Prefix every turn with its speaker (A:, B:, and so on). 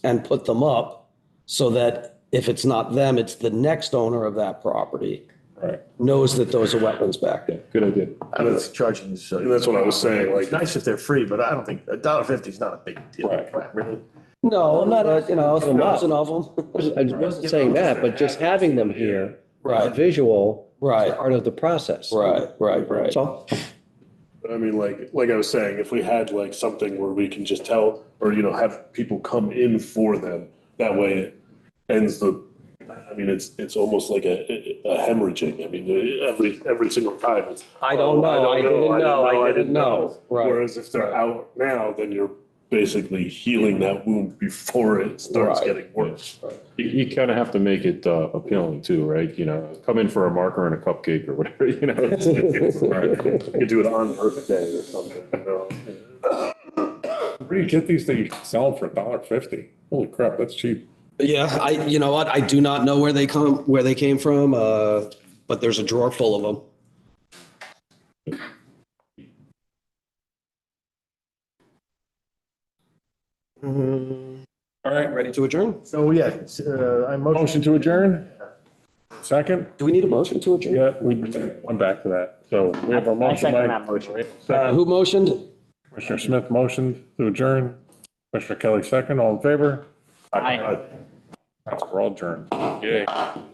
A: and put them up so that if it's not them, it's the next owner of that property
B: Right.
A: knows that those are wetlands back
B: Yeah,
A: there.
B: good idea.
C: I don't think charging is. uh,
B: And that's what I was saying, like-
C: It's nice if they're free, but I don't think, a dollar fifty is not a big deal.
B: Right.
C: Really.
A: No, not, you know, a
D: them up.
A: thousand of them.
D: I wasn't saying that, but just having them here, a
A: Right,
D: visual, is
A: right,
D: part of the process.
A: right, right, right.
D: So,
B: But I mean, like, like I was saying, if we had like something where we can just tell, or, you know, have people come in for them, that way it ends the, I mean, it's, it's almost like a, a hemorrhaging. I mean, every, every single time. it's,
A: I don't know,
B: "Oh,
A: I didn't know, I didn't know. Right,
B: Whereas if they're out now, then you're basically healing that wound before it starts
A: Right.
B: getting worse.
E: You, you kind of have to make it uh, appealing too, right? You know, come in for a marker and a cupcake or whatever, you know? it's- it's- right.
B: You could do it on Earth Day or something, you know?
F: Where do you get these things? Sell for a dollar fifty. Holy crap, that's cheap.
A: yeah, I, you know what, I do not know where they come, where they came from, uh, but there's a drawer full of them.
F: All right,
A: Ready to adjourn?
C: So, yeah, it's, uh, I motion.
F: motion to adjourn? Second?
A: Do we need a motion to adjourn?
F: Yeah, we went back to that. So we have a motion
G: second
F: by
G: that motion.
A: Uh, who motioned?
F: Commissioner Smith, motion to adjourn. Commissioner Kelly, second. All in favor?
G: Aye.
F: That's- We're all adjourned. Yay.